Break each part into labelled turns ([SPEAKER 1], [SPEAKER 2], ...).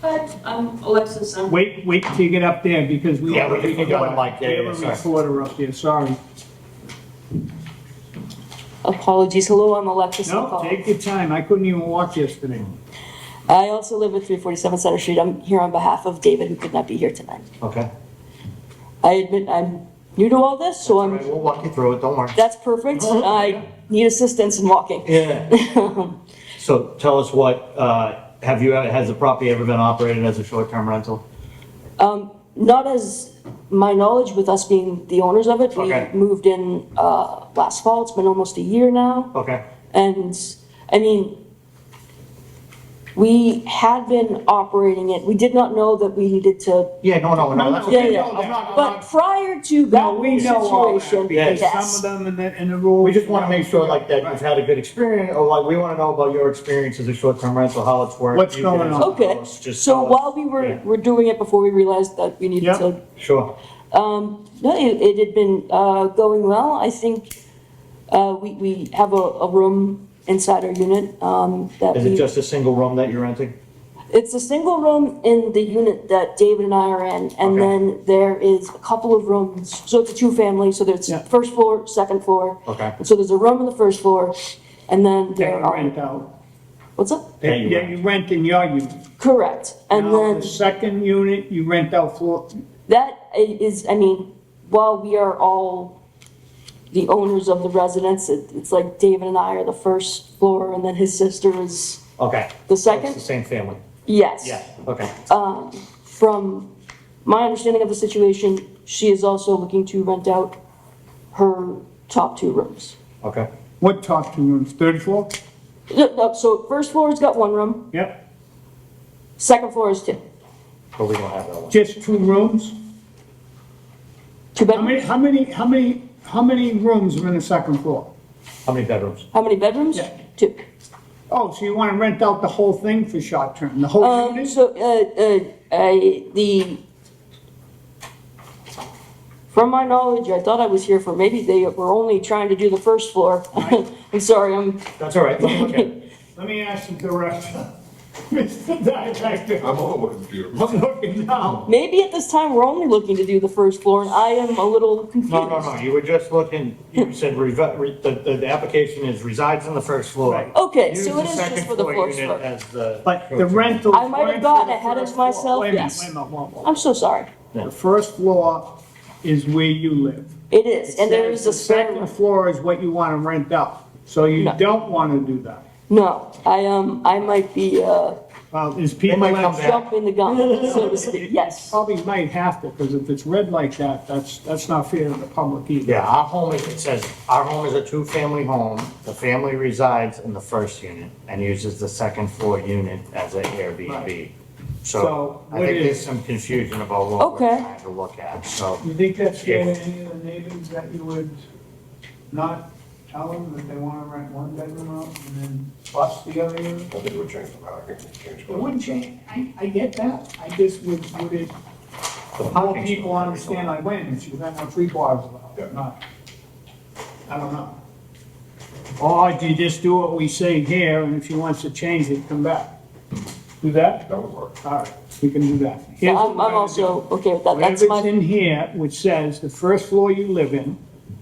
[SPEAKER 1] But, um, Alexis, I'm
[SPEAKER 2] Wait, wait till you get up there, because we
[SPEAKER 3] Yeah,
[SPEAKER 2] have a
[SPEAKER 3] we can
[SPEAKER 2] reporter,
[SPEAKER 3] go on like that,
[SPEAKER 2] we have a
[SPEAKER 3] yeah, sorry.
[SPEAKER 2] reporter up there, sorry.
[SPEAKER 4] Apologies. Hello, I'm Alexis.
[SPEAKER 2] No,
[SPEAKER 4] Alcala.
[SPEAKER 2] take your time, I couldn't even walk yesterday.
[SPEAKER 4] I also live at 347 Center Street. I'm here on behalf of David, who could not be here tonight.
[SPEAKER 3] Okay.
[SPEAKER 4] I admit I'm new to all this, so
[SPEAKER 3] All
[SPEAKER 4] I'm,
[SPEAKER 3] right, We'll walk you through it, don't worry.
[SPEAKER 4] that's perfect. I need assistance in walking.
[SPEAKER 3] Yeah. So tell us what, uh, have you, has the property ever been operated as a short-term rental?
[SPEAKER 4] Not as my knowledge with us being the owners of it. We
[SPEAKER 3] Okay.
[SPEAKER 4] moved in uh, last fall. It's been almost a year now.
[SPEAKER 3] Okay,
[SPEAKER 4] And, I mean, we had been operating it. We did not know that we needed to,
[SPEAKER 3] yeah, no, no, no, Oh, that's
[SPEAKER 4] yeah,
[SPEAKER 3] okay.
[SPEAKER 4] yeah.
[SPEAKER 3] I'm not- I'm
[SPEAKER 4] But
[SPEAKER 3] not-
[SPEAKER 4] prior to
[SPEAKER 2] No,
[SPEAKER 4] that
[SPEAKER 2] we know all that,
[SPEAKER 4] situation,
[SPEAKER 2] because
[SPEAKER 4] yes.
[SPEAKER 2] some of them in the, in the rules.
[SPEAKER 3] We just want to make sure like that you've had a good experience, or like, we want to know about your experience as a short-term rental, how it's worked.
[SPEAKER 2] What's
[SPEAKER 3] you guys
[SPEAKER 2] going on.
[SPEAKER 3] know,
[SPEAKER 4] Okay,
[SPEAKER 3] just
[SPEAKER 4] so
[SPEAKER 3] tell us.
[SPEAKER 4] while we were,
[SPEAKER 3] Yeah,
[SPEAKER 4] were doing it before we realized that we needed
[SPEAKER 2] Yep.
[SPEAKER 4] to,
[SPEAKER 3] Sure,
[SPEAKER 4] no, it, it had been, uh, going well. I think, uh, we, we have a, a room inside our unit, um, that
[SPEAKER 3] is it
[SPEAKER 4] we,
[SPEAKER 3] just a single room that you're renting?
[SPEAKER 4] it's a single room in the unit that David and I are in. And
[SPEAKER 3] Okay.
[SPEAKER 4] then there is a couple of rooms, so it's a two-family, so there's
[SPEAKER 2] Yeah.
[SPEAKER 4] first floor, second floor.
[SPEAKER 3] Okay.
[SPEAKER 4] And so there's a room on the first floor, and then
[SPEAKER 2] That
[SPEAKER 4] there
[SPEAKER 2] you rent
[SPEAKER 4] are,
[SPEAKER 2] out,
[SPEAKER 4] what's up?
[SPEAKER 3] Yeah,
[SPEAKER 2] that
[SPEAKER 3] you
[SPEAKER 2] that
[SPEAKER 3] rent.
[SPEAKER 2] you rent in your unit.
[SPEAKER 4] Correct, and
[SPEAKER 2] Now,
[SPEAKER 4] then
[SPEAKER 2] the second unit, you rent out floor,
[SPEAKER 4] that i- is, I mean, while we are all the owners of the residence, it, it's like David and I are the first floor, and then his sister is
[SPEAKER 3] Okay.
[SPEAKER 4] the
[SPEAKER 3] So It's
[SPEAKER 4] second?
[SPEAKER 3] the same family?
[SPEAKER 4] Yes.
[SPEAKER 3] Yeah, okay.
[SPEAKER 4] From my understanding of the situation, she is also looking to rent out her top two rooms.
[SPEAKER 3] Okay.
[SPEAKER 2] what top two rooms, third floor?
[SPEAKER 4] No, no, So first floor's got one room,
[SPEAKER 2] Yep,
[SPEAKER 4] second floor is two,
[SPEAKER 3] But we don't have that one.
[SPEAKER 2] just two rooms?
[SPEAKER 4] two
[SPEAKER 2] How many,
[SPEAKER 4] bedrooms.
[SPEAKER 2] how many, how many, how many rooms are in the second floor?
[SPEAKER 3] How many bedrooms?
[SPEAKER 4] How many bedrooms?
[SPEAKER 2] Yeah.
[SPEAKER 4] Two.
[SPEAKER 2] Oh, so you want to rent out the whole thing for short term, the whole
[SPEAKER 4] Um,
[SPEAKER 2] unit?
[SPEAKER 4] so, uh, uh, I, the, from my knowledge, I thought I was here for, maybe they were only trying to do the first floor. I'm sorry, I'm,
[SPEAKER 3] That's all right, let me look at it.
[SPEAKER 2] Let me ask the director, Mr. Director,
[SPEAKER 5] I'm all over the computer.
[SPEAKER 2] I'm looking now.
[SPEAKER 4] maybe at this time, we're only looking to do the first floor, and I am a little confused.
[SPEAKER 3] No, no, no, you were just looking, you said revi- re- the, the, the application is resides on the first floor.
[SPEAKER 2] Right.
[SPEAKER 4] Okay,
[SPEAKER 3] Use
[SPEAKER 4] so
[SPEAKER 3] the
[SPEAKER 4] it is just
[SPEAKER 3] second
[SPEAKER 4] for the
[SPEAKER 3] floor
[SPEAKER 4] first
[SPEAKER 3] unit
[SPEAKER 4] floor.
[SPEAKER 3] As the.
[SPEAKER 2] But the rental.
[SPEAKER 4] I might have gotten ahead of myself,
[SPEAKER 2] Wait a minute,
[SPEAKER 4] yes.
[SPEAKER 2] wait a minute, whoa, whoa.
[SPEAKER 4] I'm so sorry.
[SPEAKER 2] The first floor is where you live.
[SPEAKER 4] It is, and there is a
[SPEAKER 2] The
[SPEAKER 4] spare
[SPEAKER 2] second
[SPEAKER 4] room.
[SPEAKER 2] floor is what you want to rent out, so you
[SPEAKER 4] No.
[SPEAKER 2] don't want to do that.
[SPEAKER 4] No, I, um, I might be, uh,
[SPEAKER 2] Well, there's people
[SPEAKER 3] might come
[SPEAKER 2] that
[SPEAKER 3] back.
[SPEAKER 4] jumping the gun, so to speak, yes.
[SPEAKER 2] probably might have to, because if it's red like that, that's, that's not fair to the public either.
[SPEAKER 3] Yeah, our home is, it says, our home is a two-family home. The family resides in the first unit and uses the second floor unit as an Airbnb.
[SPEAKER 2] Right. So,
[SPEAKER 3] So I
[SPEAKER 2] what
[SPEAKER 3] think
[SPEAKER 2] is-
[SPEAKER 3] there's some confusion about what we're
[SPEAKER 4] Okay.
[SPEAKER 3] trying to look at, so.
[SPEAKER 2] You think that's fair to
[SPEAKER 3] Yeah.
[SPEAKER 2] any of the neighbors that you would not tell them that they want to rent one bedroom out and then bust the other unit?
[SPEAKER 5] I think we're changing the parking, change
[SPEAKER 2] It wouldn't change, I, I get that, I just would, would it,
[SPEAKER 3] the
[SPEAKER 2] more
[SPEAKER 3] parking's-
[SPEAKER 2] people understand like, wait a minute, you rent out three bars
[SPEAKER 5] Yeah.
[SPEAKER 2] about, not, I don't know. Or do you just do what we say here, and if she wants to change it, come back? Do that?
[SPEAKER 5] That would work.
[SPEAKER 2] All right, we can do that.
[SPEAKER 4] Yeah,
[SPEAKER 2] Here's what
[SPEAKER 4] I'm,
[SPEAKER 2] we're
[SPEAKER 4] I'm
[SPEAKER 2] gonna do.
[SPEAKER 4] also okay with that. That's
[SPEAKER 2] Whatever's
[SPEAKER 4] my,
[SPEAKER 2] in here, which says the first floor you live in,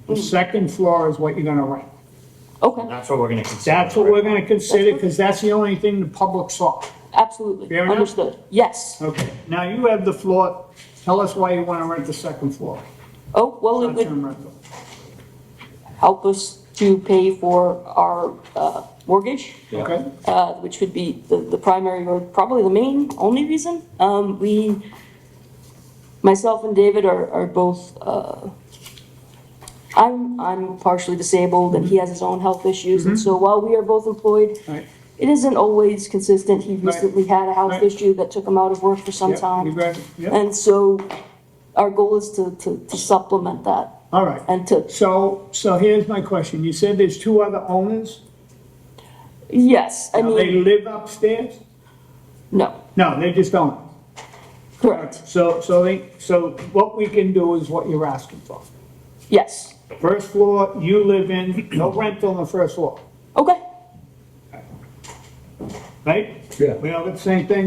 [SPEAKER 4] Mm.
[SPEAKER 2] the second floor is what you're gonna rent.
[SPEAKER 4] okay,
[SPEAKER 3] That's what we're gonna consider.
[SPEAKER 2] That's what we're gonna consider, because that's the only thing the public saw.
[SPEAKER 4] absolutely,
[SPEAKER 2] Fair enough?
[SPEAKER 4] understood, yes.
[SPEAKER 2] Okay, now you have the floor, tell us why you wanna rent the second floor,
[SPEAKER 4] Oh, well, it would
[SPEAKER 2] short-term rental.
[SPEAKER 4] help us to pay for our uh, mortgage,
[SPEAKER 2] Okay,
[SPEAKER 4] uh, which would be the, the primary or probably the main, only reason. Um, we, myself and David are, are both, uh, I'm, I'm partially disabled and he has his own health issues.
[SPEAKER 2] Mm-hmm.
[SPEAKER 4] And so while we are both employed,
[SPEAKER 2] all right.
[SPEAKER 4] it isn't always consistent. He
[SPEAKER 2] Right.
[SPEAKER 4] recently had a health
[SPEAKER 2] Right.
[SPEAKER 4] issue that took him out of work for some
[SPEAKER 2] Yep, you
[SPEAKER 4] time.
[SPEAKER 2] got it. Yep,
[SPEAKER 4] And so our goal is to, to, to supplement that
[SPEAKER 2] all right.
[SPEAKER 4] and to,
[SPEAKER 2] So, so here's my question, you said there's two other owners?
[SPEAKER 4] yes, I
[SPEAKER 2] Now, they
[SPEAKER 4] mean,
[SPEAKER 2] live upstairs?
[SPEAKER 4] no,
[SPEAKER 2] No, they just don't.
[SPEAKER 4] correct,
[SPEAKER 2] So, so they, so what we can do is what you're asking for.
[SPEAKER 4] yes.
[SPEAKER 2] First floor, you live in, no rental on the first floor,
[SPEAKER 4] Okay.
[SPEAKER 2] right?
[SPEAKER 3] Yeah.
[SPEAKER 2] We all live the same thing?